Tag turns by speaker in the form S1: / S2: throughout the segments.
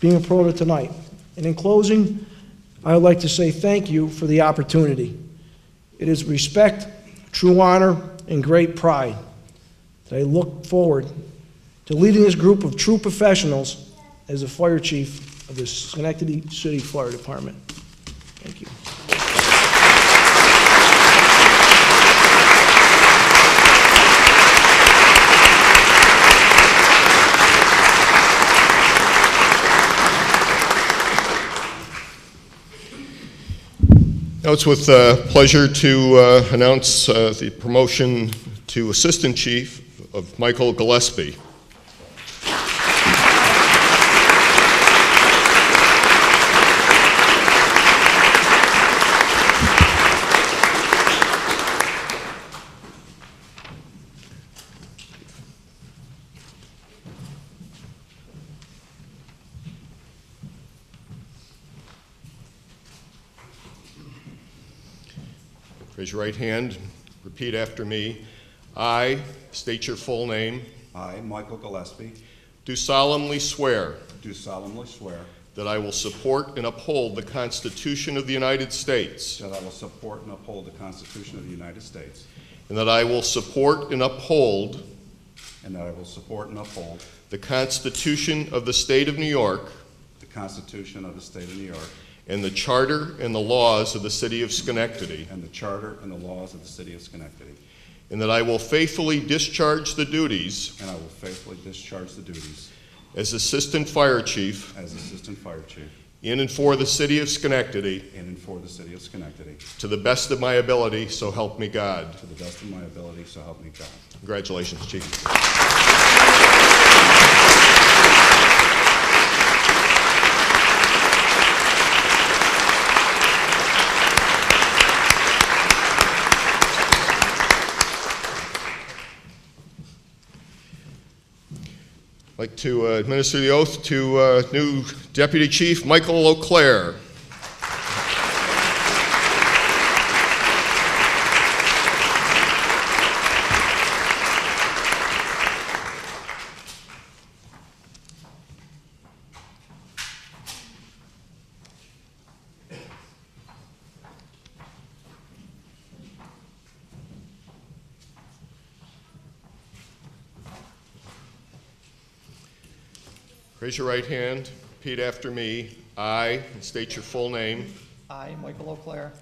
S1: being approved tonight. And in closing, I would like to say thank you for the opportunity. It is respect, true honor, and great pride that I look forward to leading this group of true professionals as the fire chief of the Schenectady City Fire Department. Thank you.
S2: Now it's with uh, pleasure to uh, announce uh, the promotion to Assistant Chief of Michael Gillespie. Raise your right hand, repeat after me. I, state your full name,
S3: I, Michael Gillespie,
S2: do solemnly swear
S3: do solemnly swear
S2: that I will support and uphold the Constitution of the United States,
S3: that I will support and uphold the Constitution of the United States,
S2: and that I will support and uphold
S3: and that I will support and uphold
S2: the Constitution of the State of New York
S3: the Constitution of the State of New York
S2: and the Charter and the laws of the City of Schenectady,
S3: and the Charter and the laws of the City of Schenectady,
S2: and that I will faithfully discharge the duties
S3: and I will faithfully discharge the duties
S2: as Assistant Fire Chief
S3: as Assistant Fire Chief
S2: in and for the City of Schenectady
S3: in and for the City of Schenectady
S2: to the best of my ability, so help me God.
S3: to the best of my ability, so help me God.
S2: Congratulations, Chief. I'd like to uh, administer the oath to uh, new Deputy Chief Michael O'Clair. Raise your right hand, repeat after me. I, and state your full name,
S4: I, Michael O'Clair,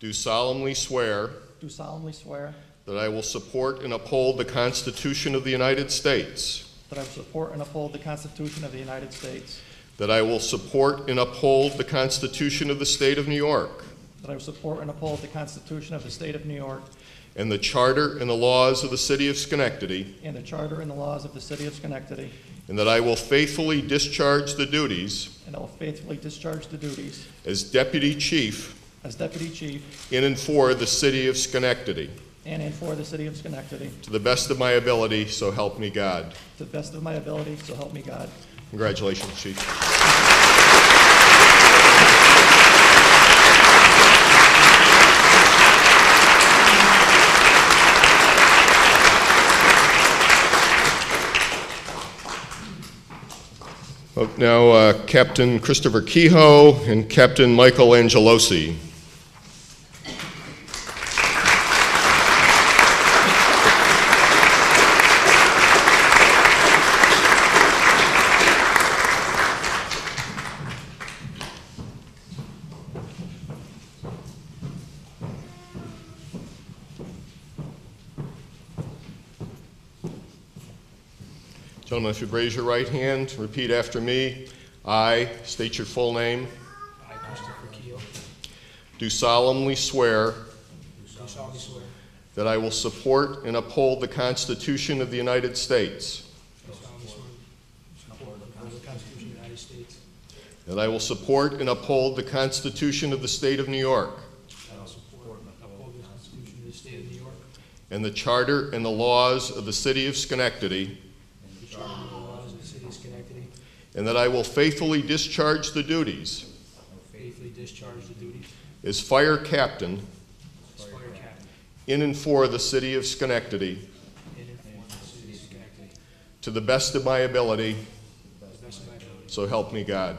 S2: do solemnly swear
S4: do solemnly swear
S2: that I will support and uphold the Constitution of the United States,
S4: that I will support and uphold the Constitution of the United States,
S2: that I will support and uphold the Constitution of the State of New York,
S4: that I will support and uphold the Constitution of the State of New York
S2: and the Charter and the laws of the City of Schenectady,
S4: and the Charter and the laws of the City of Schenectady,
S2: and that I will faithfully discharge the duties
S4: and I will faithfully discharge the duties
S2: as Deputy Chief
S4: as Deputy Chief
S2: in and for the City of Schenectady
S4: and and for the City of Schenectady
S2: to the best of my ability, so help me God.
S4: to the best of my ability, so help me God.
S2: Congratulations, Chief. Up Now, uh, Captain Christopher Kehoe and Captain Michael Angelosi. Gentlemen, if you'd raise your right hand, repeat after me. I state your full name.
S5: I, Christopher Keel,
S2: Do solemnly swear
S5: do solemnly swear
S2: that I will support and uphold the Constitution of the United States,
S5: do solemnly swear support and uphold the Constitution of the United States,
S2: that I will support and uphold the Constitution of the State of New York,
S5: that I will support and uphold the Constitution of the State of New York,
S2: and the Charter and the laws of the City of Schenectady,
S5: and the Charter and the laws of the City of Schenectady,
S2: and that I will faithfully discharge the duties
S5: and faithfully discharge the duties
S2: as Fire Captain
S5: as fire captain
S2: in and for the City of Schenectady
S5: in and for the City of Schenectady, to
S2: to the best of my ability,
S5: the best of my ability.
S2: so help me God.